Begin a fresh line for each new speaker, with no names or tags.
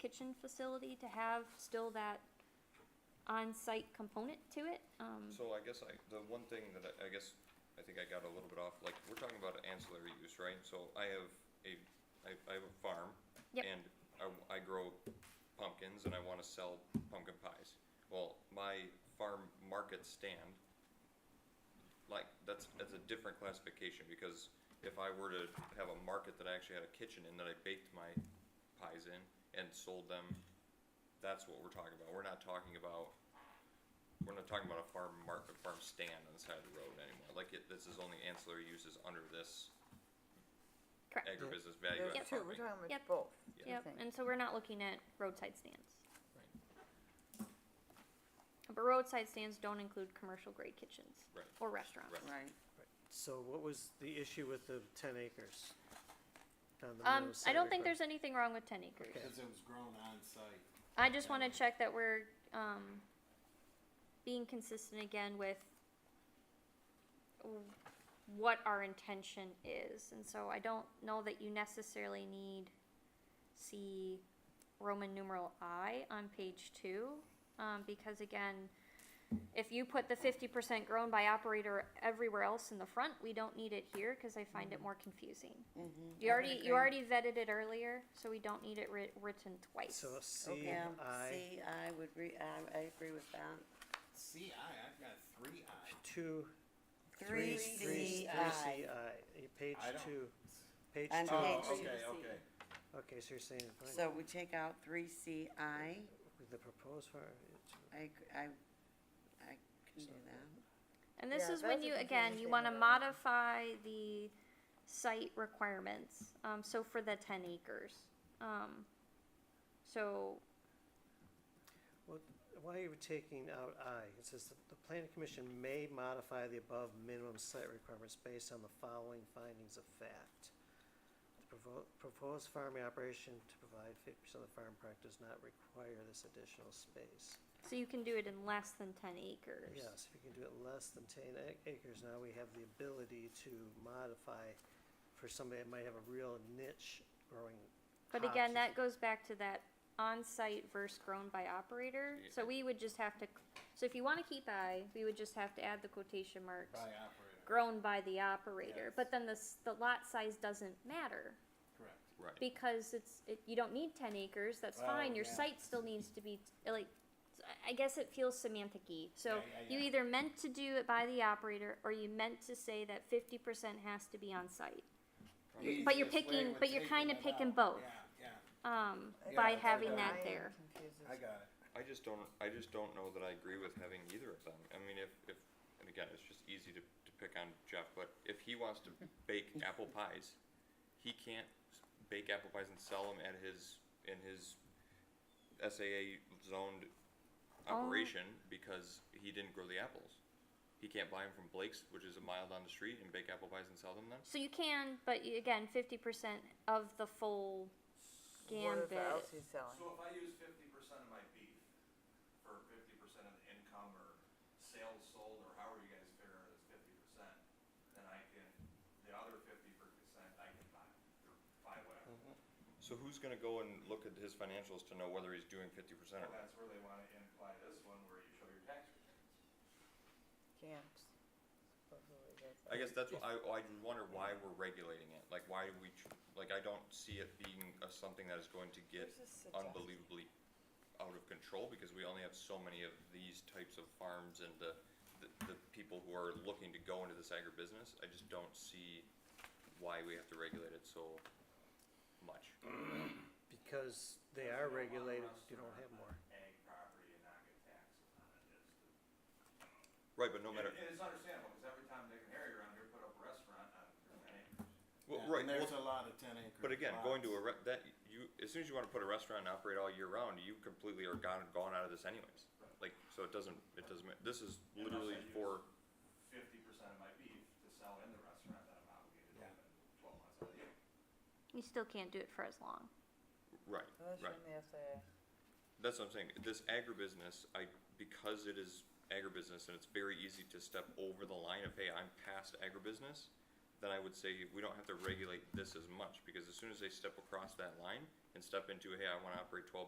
kitchen facility to have still that on-site component to it, um,
So I guess I, the one thing that I, I guess, I think I got a little bit off, like, we're talking about ancillary use, right? So I have a, I, I have a farm.
Yep.
And I, w- I grow pumpkins and I wanna sell pumpkin pies. Well, my farm market stand, like, that's, that's a different classification, because if I were to have a market that I actually had a kitchen in that I baked my pies in and sold them, that's what we're talking about. We're not talking about we're not talking about a farm mark, a farm stand on the side of the road anymore, like it, this is only ancillary uses under this
correct.
agribusiness value added
Yep.
That's true, we're
farming.
talking about
Yep.
both. I
Yep,
think.
and so we're not looking at roadside stands. But roadside stands don't include commercial grade kitchens.
Right.
Or restaurants.
Right.
Right,
So what was the issue with the ten acres? down the
Um,
middle
I don't think
Saturday Park?
there's anything wrong with ten acres.
Because it was grown on site.
I just wanna check that we're, um, being consistent again with w- what our intention is, and so I don't know that you necessarily need see Roman numeral I on page two, um, because again, if you put the fifty percent grown by operator everywhere else in the front, we don't need it here, cause I find it more confusing. You
Mm-hmm. I would
already,
agree.
you already vetted it earlier, so we don't need it writ- written twice.
So C,
okay, um,
I,
C, I would re, uh, I, I agree with that.
CI, I've got three I.
two,
Three
three, three, three C,
C, I.
I, eh, page
I don't-
two, page
On
two.
page
Oh,
two.
okay, okay.
Okay, so you're saying, fine,
So we take out three C, I,
the proposed farm, it's-
I, ag- I, I can do that.
And this
Yeah,
is when
that's a
you, again, you
confusing
wanna
thing about it.
modify the site requirements, um, so for the ten acres, um, so,
Well, why are you taking out I? It says that the planning commission may modify the above minimum site requirements based on the following findings of fact. The provo- proposed farming operation to provide fifty percent of the farm product does not require this additional space.
so you can do it in less than ten acres.
Yes, if you can do it less than ten ac- acres, now we have the ability to modify for somebody that might have a real niche growing.
But again,
hops.
that goes back to that on-site versus grown by operator, so
Yeah.
we would just have to, so if you wanna keep I, we would just have to add the quotation marks.
By operator,
Grown by the operator,
Yes.
but then the, s- the lot size doesn't matter.
correct.
Right.
because it's, it, you don't need ten acres, that's
Well,
fine, your
yeah.
site still needs to be, t- like, I- I guess it feels semantic-y, so
Yeah, yeah,
you
yeah.
either meant to do it by the operator, or you meant to say that fifty percent has to be on site. But you're
Easiest way
picking-
would
but you're
taking
kinda
it
picking
out.
both.
Yeah,
Um,
Yeah,
by
it's
having
like
that
I am
there,
yeah, I got it.
I just don't, I just don't know that I agree with having either of them. I mean, if, if, and again, it's just easy to, to pick on Jeff, but if he wants to bake apple pies, he can't s- bake apple pies and sell them at his, in his SAA zoned operation because he didn't grow the apples. He can't buy them from Blake's, which is a mile down the street, and bake apple pies and sell them then?
so you can, but you- again, fifty percent of the full gambit.
Whatever else he's selling.
So if I use fifty percent of my beef for fifty percent of the income or sales sold, or however you guys figure out it's fifty percent, then I can, the other fifty percent, I can buy, or buy whatever.
Mm-hmm.
So who's gonna go and look at his financials to know whether he's doing fifty percent or
And
not?
that's where they wanna imply this one where you show your tax returns.
Camps.
I guess that's what I, I just wonder why we're regulating it, like why we, tr- like I don't see it being a, something that is going to get
There's a suggestion.
unbelievably out of control, because we only have so many of these types of farms and the, the, the people who are looking to go into this agribusiness, I just don't see why we have to regulate it so much.
Because they
If
are
you don't want a
regulated, you don't
restaurant
have
on
more.
Ag property and not get taxes on it is the.
Right, but no matter,
And it's understandable, cause every time Dick and Harry around here put up a restaurant uh, on ten acres.
well,
Yeah,
right,
and There's
well,
a lot of ten acre.
but again, going to a
lots.
re- that, you, as soon as you wanna put a restaurant and operate all year round, you completely are gone, gone out of this anyways. Like, so it doesn't, it doesn't, ma- this is
Unless
literally
I use-
for.
fifty percent of my beef to sell in the restaurant that I'm obligated to
Yeah.
have it twelve months out of the year.
You still can't do it for as long.
Right,
Unless you're
right.
in the SAA.
That's what I'm saying. This agribusiness, I, because it is agribusiness and it's very easy to step over the line of, hey, I'm past agribusiness, then I would say we don't have to regulate this as much because as soon as they step across that line and step into, hey, I wanna operate twelve